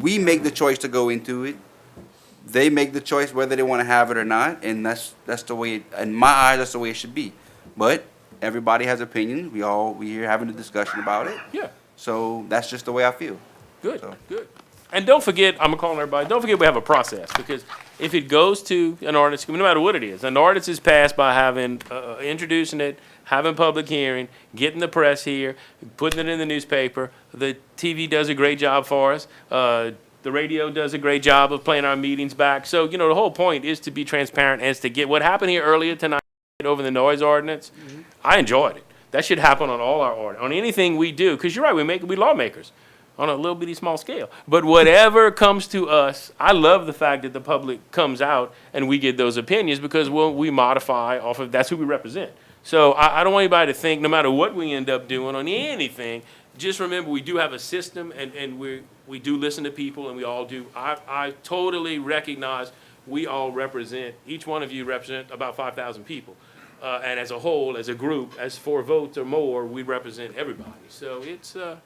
we make the choice to go into it. They make the choice whether they want to have it or not, and that's that's the way. in my eyes, that's the way it should be. But everybody has opinions. We all we here having a discussion about it. Yeah, So that's just the way I feel. good, So- good. And don't forget, I'm gonna call on everybody. Don't forget we have a process because if it goes to an ordinance, committee, no matter what it is, an ordinance is passed by having uh, introducing it, having public hearing, getting the press here, putting it in the newspaper. The TV does a great job for us. Uh, the radio does a great job of playing our meetings back. So you know the whole point is to be transparent as to get what happened here earlier tonight. over the noise ordinance. I enjoyed it. That should happen on all our ord, on anything we do, because you're right, we make, we lawmakers on a little bitty small scale. But whatever comes to us, I love the fact that the public comes out and we get those opinions because we'll, we modify off of, that's who we represent. So I, I don't want anybody to think, no matter what we end up doing on anything, just remember, we do have a system and, and we, we do listen to people and we all do. I, I totally recognize we all represent, each one of you represent about five thousand people. Uh, and as a whole, as a group, as four votes or more, we represent everybody. So it's, uh,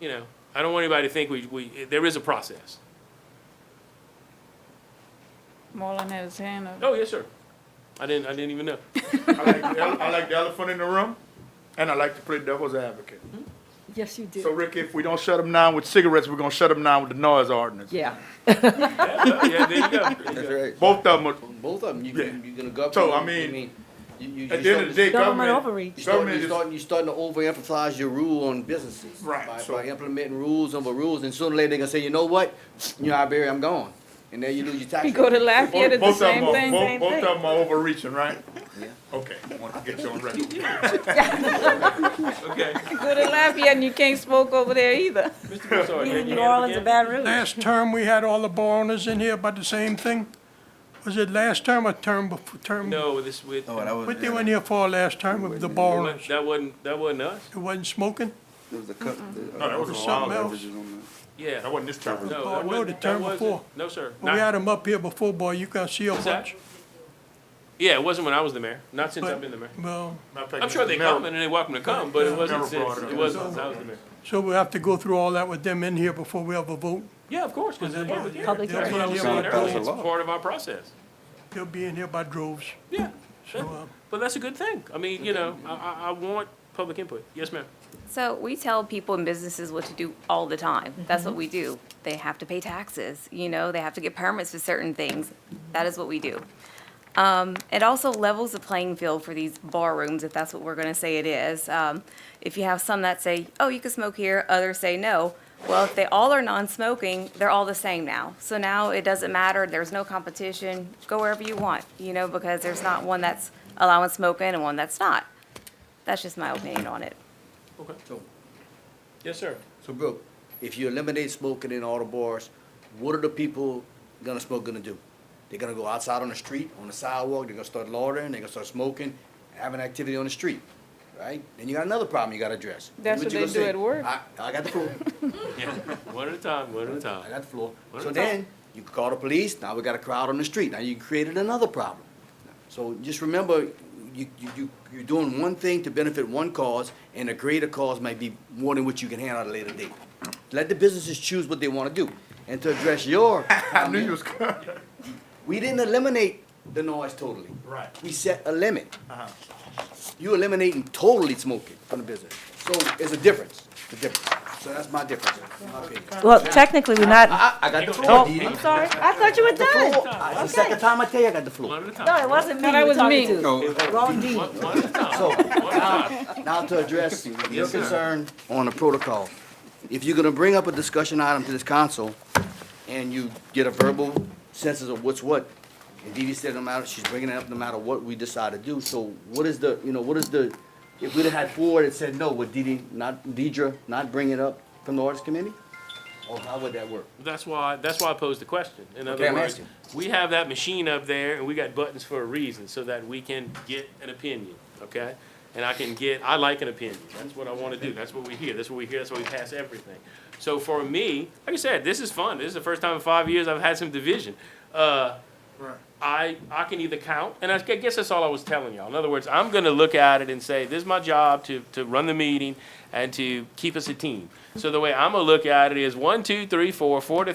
you know, I don't want anybody to think we, we, there is a process. Marlon had his hand up. Oh, yes, sir. I didn't, I didn't even know. I like, the ele- I like the elephant in the room, and I like to play devil's advocate. Mm-hmm. Yes, you So, do. Ricky, if we don't shut them down with cigarettes, we're gonna shut them down with the noise ordinance. Yeah. Yeah, yeah, there you go. There you That's go. right. Both of them, are, Both of them, you, Yeah. you're gonna go up. So, to- I mean, you- you- at you the end start- of the day, Government government. overreach. You start, government you is- start, you starting to overemphasize your rule on businesses. Right, By, so- by implementing rules over rules, and sooner or later they gonna say, you know what, you know, I bury, I'm gone, and then you lose your tax. You go to rate. Lafayette, Both it's the both of them same are, thing. both, both of them are overreaching, right? Okay, I want to get you on record. Okay. You go to Lafayette and you can't smoke over there either. Mr. Broussard, you had your hand New up Orleans again? and Baton Rouge. Last term, we had all the bar owners in here about the same thing? Was it last term or term before, term? No, this with, Oh, that was, What they went here for last term with the bar owners? that wasn't, that wasn't us. It wasn't smoking? There was a cup. the- No, that was a while Something ago. else? averages on Yeah. That wasn't this term. No, Oh, that no, wasn't- the that term wasn't- before. No, sir. Well, Not- We had them up here before, boy, you can see a Is that- bunch. Yeah, it wasn't when I was the mayor, not since I've been the mayor. Well, I'm sure they come and they're welcome to come, but it wasn't Never brought since, it up. it wasn't since I was the mayor. so we have to go through all that with them in here before we ever vote. Yeah, of course, because it's public hearing. Public That's hearing. what I was Yeah, saying but earlier, that's it's a law. part of our process. They'll be in here by droves. Yeah, So, uh, but that's a good thing. I mean, you know, I, I, I want public input. Yes, ma'am. So we tell people and businesses what to do all the time. That's what we do. They have to pay taxes, you know, they have to get permits for certain things. That is what we do. Um, it also levels the playing field for these bar rooms, if that's what we're gonna say it is. Um, if you have some that say, oh, you can smoke here, others say no. Well, if they all are non-smoking, they're all the same now. So now it doesn't matter, there's no competition, go wherever you want, you know, because there's not one that's allowing smoking and one that's not. That's just my opinion on it. Okay. So- Yes, sir. So, Brooke, if you eliminate smoking in all the bars, what are the people gonna smoke gonna do? They're gonna go outside on the street, on the sidewalk, they're gonna start loitering, they're gonna start smoking, having activity on the street, right? Then you got another problem you gotta address. That's what you they gonna do say? at work. I, I got the floor, Yeah, one at a time, one at a I time. got the floor. What So is that? then, you call the police, now we got a crowd on the street, now you created another problem. So just remember, you, you, you, you're doing one thing to benefit one cause, and a greater cause might be more than what you can handle at a later date. Let the businesses choose what they wanna do, and to address your I knew you comment, was coming. we didn't eliminate the noise totally. Right. We set a limit. You eliminating totally smoking from the business, so it's a difference, it's a difference, so that's my difference, in my opinion. Well, technically, we're not, I, I got the floor, oh, Dee Dee. I'm sorry. I thought you were done. It's the second time I tell you I got the flu. One at a No, time. it wasn't me No, that you were was me. talking to. the- Wrong D. One at a time. So, One at a time. now to address your concern on the protocol. If you're gonna bring up a discussion item to this council, and you get a verbal census of what's what, and Dee Dee said no matter, she's bringing it up no matter what we decide to do, so what is the, you know, what is the, if we'd have had four that said no, would Dee Dee not, Deidre not bring it up from the arts committee? Or how would that work? That's why, that's why I posed the question. In Okay, other I'm words, asking. we have that machine up there and we got buttons for a reason so that we can get an opinion, okay? And I can get, I like an opinion. That's what I want to do. That's what we hear. That's what we hear. That's why we pass everything. So for me, like I said, this is fun. This is the first time in five years I've had some division. Uh, I, I can either count, and I gu- guess that's all I was telling y'all. In other words, I'm gonna look at it and say, this is my job to, to run the meeting and to keep us a team. So the way I'm gonna look at it is one, two, three, four, four to